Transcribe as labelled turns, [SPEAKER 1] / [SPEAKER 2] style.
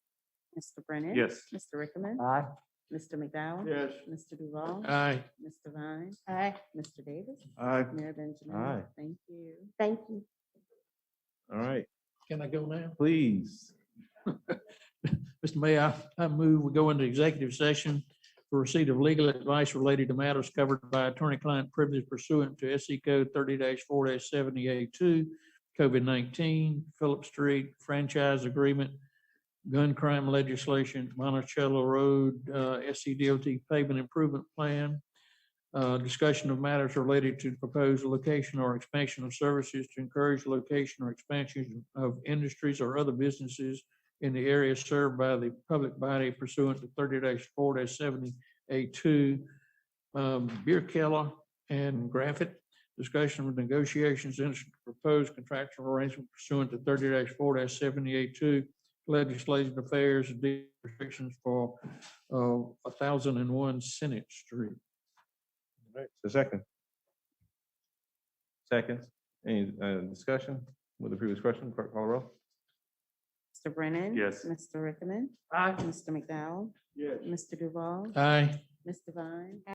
[SPEAKER 1] Mr. Brennan.
[SPEAKER 2] Yes.
[SPEAKER 1] Mr. Rickman.
[SPEAKER 3] Aye.
[SPEAKER 1] Mr. McDowell.
[SPEAKER 2] Yes. Uh,
[SPEAKER 1] Mr. Duval.
[SPEAKER 2] Aye.
[SPEAKER 1] Mr. Vine. Aye. Mr. Davis.
[SPEAKER 2] Aye.
[SPEAKER 1] Mayor Benjamin.
[SPEAKER 2] Aye.
[SPEAKER 1] Thank you. Thank you.
[SPEAKER 2] All right,
[SPEAKER 4] Can I go now?
[SPEAKER 2] please.
[SPEAKER 4] Mr. Mayor, I I move we go into executive session for receipt of legal advice related to matters covered by attorney-client privilege pursuant to SC Code thirty four seventy-eight two, COVID nineteen, Phillips Street franchise agreement, gun crime legislation, Monticello Road, uh, SC DOT pavement improvement plan, uh, discussion of matters related to proposed location or expansion of services to encourage location or expansion of industries or other businesses in the area served by the public body pursuant to thirty four seventy A two. um, Beer Keller and Graffit, discussion of negotiations and proposed contractual arrangement pursuant to thirty four seventy A two. Legislative affairs and deed restrictions for uh, a thousand and one Senate Street.
[SPEAKER 2] A second. Second, any uh, discussion with the previous question, clerk call the roll?
[SPEAKER 1] Mr. Brennan.
[SPEAKER 2] Yes.
[SPEAKER 1] Mr. Rickman.
[SPEAKER 4] Aye.
[SPEAKER 1] Mr. McDowell.
[SPEAKER 2] Yes. Uh,
[SPEAKER 1] Mr. Duval.
[SPEAKER 4] Aye.
[SPEAKER 1] Mr. Vine.